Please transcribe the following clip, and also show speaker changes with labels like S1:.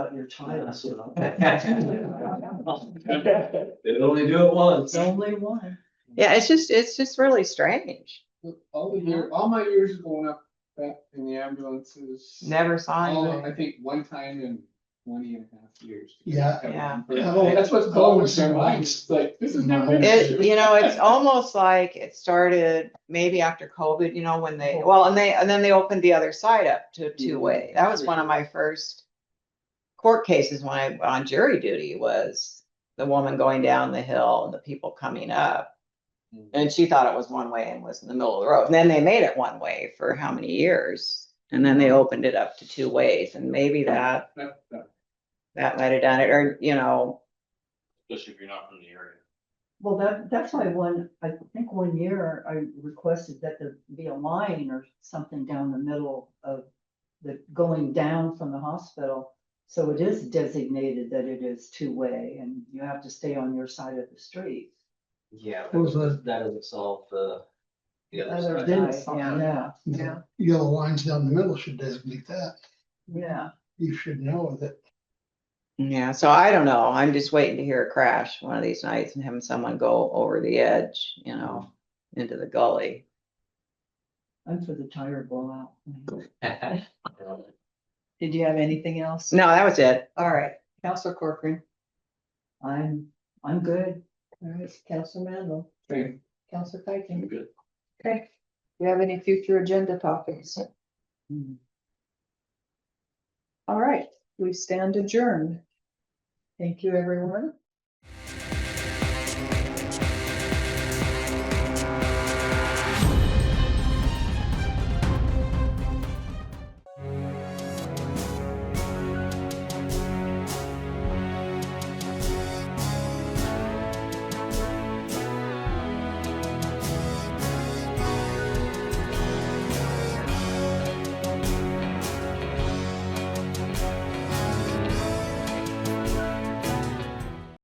S1: out your China, so.
S2: They only do it once.
S1: It's only one.
S3: Yeah, it's just, it's just really strange.
S4: All the year, all my years going up back in the ambulances.
S3: Never saw
S4: All, Oh, I
S3: anything.
S4: think one time in twenty and a half years.
S5: Yeah. Oh,
S3: Yeah.
S4: Yeah, That's what's bogus in my mind, it's like, this is never. gonna
S3: It,
S4: be-
S3: you know, it's almost like it started maybe after COVID, you know, when they, well, and they, and then they opened the other side up to two-way. That was one of my first court cases when I, went on jury duty was the woman going down the hill and the people coming up. And she thought it was one way and was in the middle of the road. And then they made it one way for how many years? And then they opened it up to two ways and maybe that,
S4: That- that-
S3: that might have done it or, you know,
S2: Especially if you're not from the area.
S1: Well, that, that's why one, I think one year I requested that there be a line or something down the middle of the, going down from the hospital. So it is designated that it is two-way and you have to stay on your side of the street.
S2: Yeah,
S5: What was that?
S2: doesn't solve the. The
S1: Other
S2: other side.
S1: than- Yeah,
S5: Yeah. Yellow lines down the middle should designate that.
S1: yeah.
S5: You should know that
S3: Yeah, so I don't know. I'm just waiting to hear a crash one of these nights and having someone go over the edge, you know, into the gully.
S1: I'm for the tire blowout. Did you have anything else?
S3: No, that was it.
S1: All right, Counselor Corcoran. I'm, I'm good.
S6: All right, Counselor Mandel,
S4: Thank-
S6: Counselor Pikin,
S2: I'm good.
S6: okay. Do you have any future agenda topics?
S1: Mm-hmm.
S6: All right, we stand adjourned. Thank you, everyone.